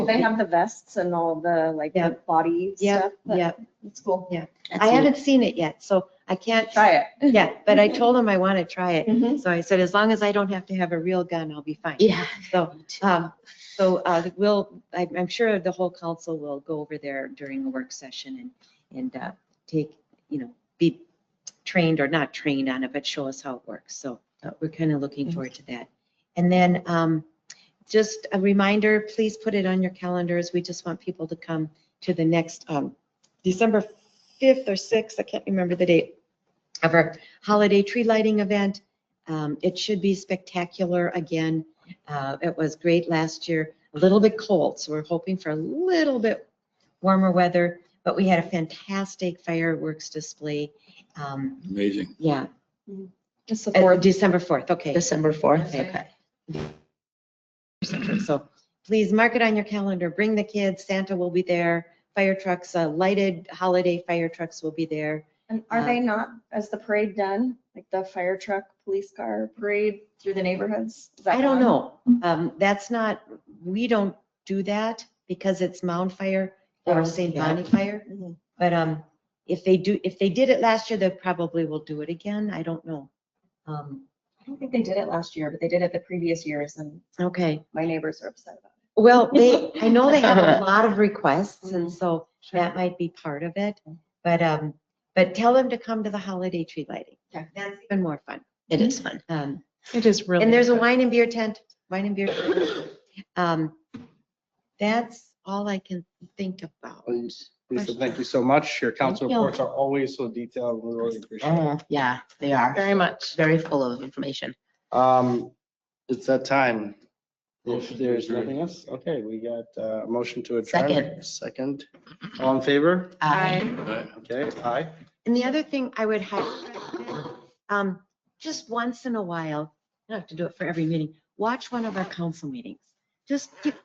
They have the vests and all the like the body Yeah, stuff. but yeah. It's cool. I haven't seen it yet, so I can't, Try it. yeah, but I told him I want to try it. Mhm. So I said, as long as I don't have to have a real gun, I'll be fine. Yeah. So, um, so, uh, we'll, I'm, I'm sure the whole council will go over there during the work session and, and, uh, take, you know, be trained or not trained on it, but show us how it works. So, uh, we're kind of looking forward to that. And then, um, just a reminder, please put it on your calendars. We just want people to come to the next, um, December 5th or 6th, I can't remember the date, of our holiday tree lighting event. Um, it should be spectacular again. Uh, It was great last year, a little bit cold, so we're hoping for a little bit warmer weather, but we had a fantastic fireworks display. Um, Amazing. Yeah, Just the or fourth. December 4th, okay. December 4th, Okay. okay. So please mark it on your calendar, bring the kids, Santa will be there, fire trucks, uh, lighted holiday fire trucks will be there. And are uh, they not, is the parade done? Like the fire truck, police car parade through the neighborhoods? Is that I don't gone? know, um, that's not, we don't do that because it's Mound Fire Oh, or St. yeah. Bonnie Fire. Mhm. But um, if they do, if they did it last year, they probably will do it again. I don't know. Um, I don't think they did it last year, but they did it the previous years and okay. my neighbors are upset about Well, they, I know they have a lot of requests and so it. that might be part of it. But um, but tell them to come to the holiday tree lighting. Yeah. That's even more fun. It is fun. Um, It is really. and there's a good. wine and beer tent, wine and beer. tent. Um, that's all I can think about. Please, Lisa, thank you so much. Your council Thank you. reports are always so detailed. We really appreciate it. Oh, yeah, they are. Very much. Very full of information. Um, it's that time. If there's nothing else, okay, we got uh, a motion to adjourn. Second. Second. All in favor? Uh, Okay, aye. And the other thing I would highlight, um, just once in a while, you don't have to do it for every meeting, watch one of our council meetings. Just get